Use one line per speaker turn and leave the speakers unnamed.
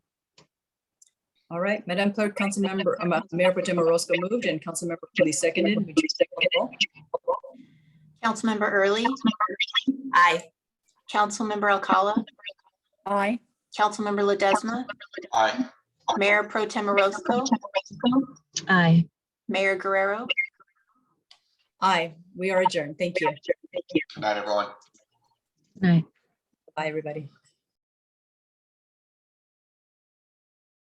All right, Madam Clerk, Councilmember, um, uh, Mayor Potem Orozco moved and Councilmember Cooley seconded. Would you take the roll?
Councilmember Early,
Aye.
Councilmember Alcala,
Aye.
Councilmember Ledesma,
Aye.
Mayor Pro Tem Orozco,
Aye.
Mayor Guerrero.
Aye, we are adjourned. Thank you.
Good night, everyone.
Aye.
Bye, everybody.